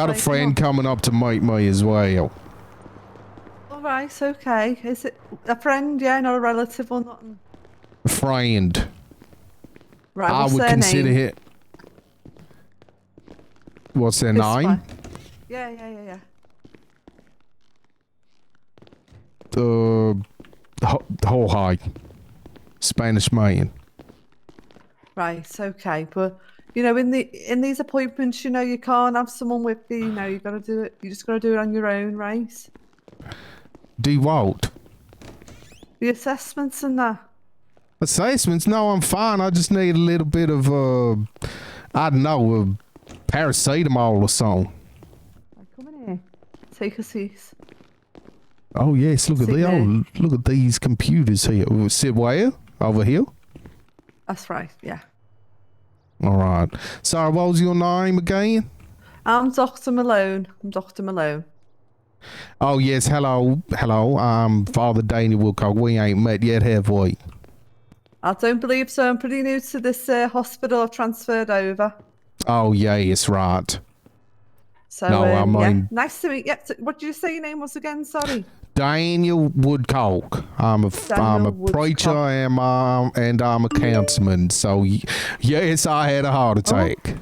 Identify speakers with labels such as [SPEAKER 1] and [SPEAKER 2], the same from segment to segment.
[SPEAKER 1] Got a
[SPEAKER 2] Like,
[SPEAKER 1] friend coming up to meet me as well.
[SPEAKER 2] All right, okay. Is it a friend? Yeah, not a relative or nothing.
[SPEAKER 1] A friend.
[SPEAKER 2] Right,
[SPEAKER 1] I
[SPEAKER 2] what's
[SPEAKER 1] would
[SPEAKER 2] their
[SPEAKER 1] consider
[SPEAKER 2] name?
[SPEAKER 1] it. What's their
[SPEAKER 2] This
[SPEAKER 1] name?
[SPEAKER 2] one. Yeah, yeah, yeah, yeah.
[SPEAKER 1] Uh, Jo- Jorge. Spanish man.
[SPEAKER 2] Right, okay. But you know, in the in these appointments, you know, you can't have someone with you. You know, you gotta do it. You just gotta do it on your own, right?
[SPEAKER 1] Do what?
[SPEAKER 2] The assessments and that.
[SPEAKER 1] Assessments? No, I'm fine. I just need a little bit of, uh, I don't know, uh, paracetamol or something.
[SPEAKER 2] Right, come in here. Take a seat.
[SPEAKER 1] Oh, yes. Look at
[SPEAKER 2] Sit
[SPEAKER 1] the,
[SPEAKER 2] there.
[SPEAKER 1] oh, look at these computers here. Oh, Sit where? Over here?
[SPEAKER 2] That's right. Yeah.
[SPEAKER 1] All right. Sorry, what was your name again?
[SPEAKER 2] I'm Doctor Malone. I'm Doctor Malone.
[SPEAKER 1] Oh yes, hello, hello. I'm Father Daniel Wilcock. We ain't met yet, have we?
[SPEAKER 2] I don't believe so. I'm pretty new to this uh, hospital. I've transferred over.
[SPEAKER 1] Oh yes, right.
[SPEAKER 2] So
[SPEAKER 1] No, I
[SPEAKER 2] um, yeah.
[SPEAKER 1] mean-
[SPEAKER 2] nice to meet. Yeah. So what did you say your name was again? Sorry.
[SPEAKER 1] Daniel Woodcock. I'm a am a
[SPEAKER 2] Daniel
[SPEAKER 1] preacher
[SPEAKER 2] Woodcock.
[SPEAKER 1] and I'm and I'm a councilman. So y- yes, I had a heart
[SPEAKER 2] Oh.
[SPEAKER 1] attack.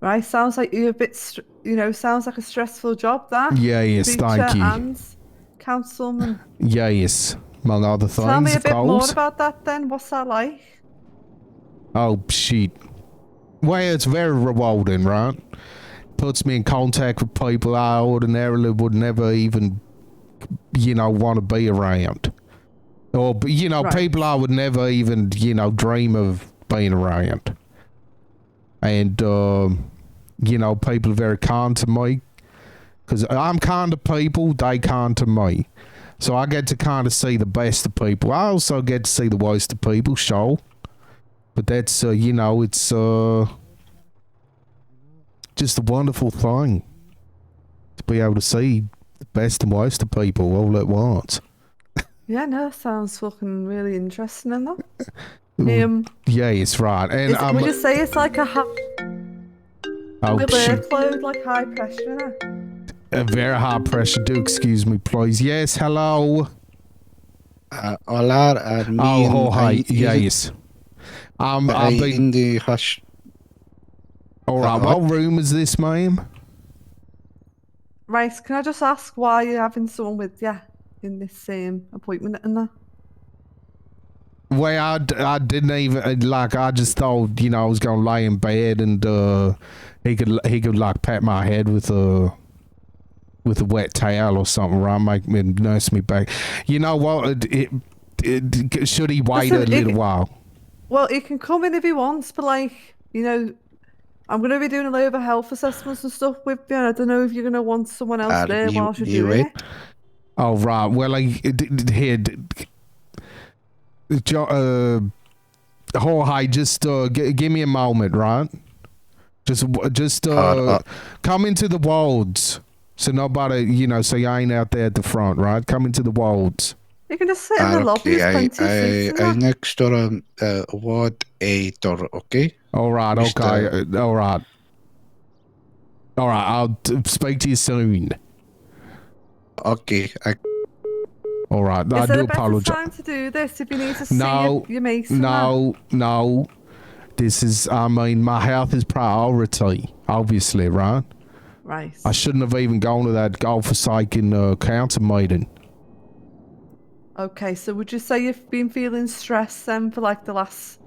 [SPEAKER 2] Right. Sounds like you're a bit. Str- you know, sounds like a stressful job. That.
[SPEAKER 1] Yes, thank
[SPEAKER 2] Preacher
[SPEAKER 1] you.
[SPEAKER 2] And councilman.
[SPEAKER 1] yes, among other things,
[SPEAKER 2] Tell me a
[SPEAKER 1] of
[SPEAKER 2] bit more
[SPEAKER 1] course.
[SPEAKER 2] about that then. What's that like?
[SPEAKER 1] Oh shit. Well, it's very rewarding, right? Puts me in contact with people I ordinarily would never even, you know, want to be around. Or, b- you know,
[SPEAKER 2] Right.
[SPEAKER 1] people I would never even, you know, dream of being around. And, um, you know, people are very kind to me. Because I'm kind to people, they kind to me. So I get to kind of see the best of people. I also get to see the worst of people, sure. But that's uh, you know, it's uh just a wonderful thing to be able to see the best and worst of people all at once.
[SPEAKER 2] Yeah, no, that sounds fucking really interesting, and that.
[SPEAKER 1] Mm.
[SPEAKER 2] Um,
[SPEAKER 1] Yeah, it's right. And
[SPEAKER 2] is,
[SPEAKER 1] I'm
[SPEAKER 2] can we just say it's like a high
[SPEAKER 1] oh, shit.
[SPEAKER 2] workload, like high pressure, innit?
[SPEAKER 1] a very high pressure. Do excuse me, please. Yes, hello.
[SPEAKER 3] Uh, Olar and me
[SPEAKER 1] Oh,
[SPEAKER 3] and
[SPEAKER 1] oh hi.
[SPEAKER 3] I
[SPEAKER 1] Yeah,
[SPEAKER 3] is-
[SPEAKER 1] yes. Um,
[SPEAKER 3] I
[SPEAKER 1] I've been
[SPEAKER 3] in the hush.
[SPEAKER 1] all right.
[SPEAKER 3] Uh,
[SPEAKER 1] What room is this, ma'am?
[SPEAKER 2] Right, can I just ask why you're having someone with you in this um, appointment and that?
[SPEAKER 1] Well, I, d- I didn't even uh, like. I just thought you know I was gonna lay in bed and uh, he could he could like pat my head with a with a wet towel or something, right? Make me nurse me back. You know what? It, it, it, should he wait
[SPEAKER 2] Listen,
[SPEAKER 1] a little
[SPEAKER 2] it-
[SPEAKER 1] while?
[SPEAKER 2] Well, he can come in if he wants, but like, you know, I'm going to be doing a load of health assessments and stuff with you. and I don't know if you're going to want someone else
[SPEAKER 3] Are
[SPEAKER 2] there
[SPEAKER 3] you-
[SPEAKER 2] while you're
[SPEAKER 3] you
[SPEAKER 2] doing
[SPEAKER 3] wait?
[SPEAKER 2] it.
[SPEAKER 1] Oh right. Well, I d- d- here. d- d- Jo- uh, Jorge, just uh, g- give me a moment, right? Just, w- just uh,
[SPEAKER 3] Uh, uh.
[SPEAKER 1] come into the wards, so nobody, you know, so you ain't out there at the front, right? Come into the wards.
[SPEAKER 2] You can just sit in the
[SPEAKER 3] Ah,
[SPEAKER 2] lobby.
[SPEAKER 3] okay,
[SPEAKER 2] There's
[SPEAKER 3] I,
[SPEAKER 2] plenty of
[SPEAKER 3] I,
[SPEAKER 2] seats
[SPEAKER 3] I
[SPEAKER 2] in that.
[SPEAKER 3] next door um, uh, ward A door, okay?
[SPEAKER 1] All right,
[SPEAKER 3] Mister-
[SPEAKER 1] okay, uh, all right, all right. I'll t- speak to you soon.
[SPEAKER 3] Okay, I,
[SPEAKER 1] All right, I
[SPEAKER 2] Is there
[SPEAKER 1] do
[SPEAKER 2] a better
[SPEAKER 1] apologize.
[SPEAKER 2] time to do this if you need to see
[SPEAKER 1] No,
[SPEAKER 2] your, your mates and that?
[SPEAKER 1] No, no. This is, I mean, my health is priority, obviously, right?
[SPEAKER 2] Right.
[SPEAKER 1] I shouldn't have even gone to that God forsaken uh, council meeting.
[SPEAKER 2] Okay, so would you say you've been feeling stressed then for like the last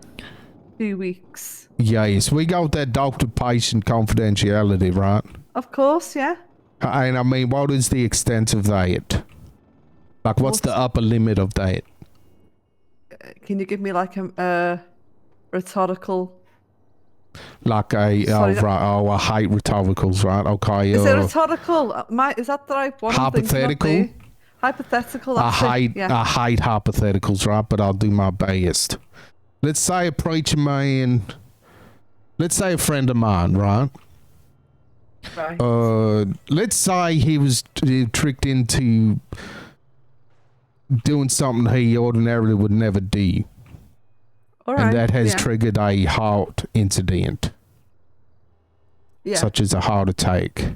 [SPEAKER 2] few weeks?
[SPEAKER 1] Yes, we got that doctor patient confidentiality, right?
[SPEAKER 2] Of course, yeah.
[SPEAKER 1] And I mean, what is the extent of that? Like, what's the upper limit of that?
[SPEAKER 2] Uh, Can you give me like a uh, rhetorical?
[SPEAKER 1] Like, a, oh,
[SPEAKER 2] Sorry, that-
[SPEAKER 1] right, oh, I hate rhetoricals, right? Okay,
[SPEAKER 2] Is it
[SPEAKER 1] uh,
[SPEAKER 2] rhetorical? Uh, My, is that the right one? I'm thinking of
[SPEAKER 1] Hypothetical?
[SPEAKER 2] there? Hypothetical.
[SPEAKER 1] I
[SPEAKER 2] That's it,
[SPEAKER 1] hate
[SPEAKER 2] Yeah.
[SPEAKER 1] I hate hypotheticals, right? But I'll do my best. Let's say a preacher man, let's say a friend of mine, right?
[SPEAKER 2] right.
[SPEAKER 1] Uh, let's say he was t- tricked into doing something he ordinarily would never do,
[SPEAKER 2] All right.
[SPEAKER 1] and that has
[SPEAKER 2] yeah.
[SPEAKER 1] triggered a heart incident.
[SPEAKER 2] Yeah.
[SPEAKER 1] such as a heart attack.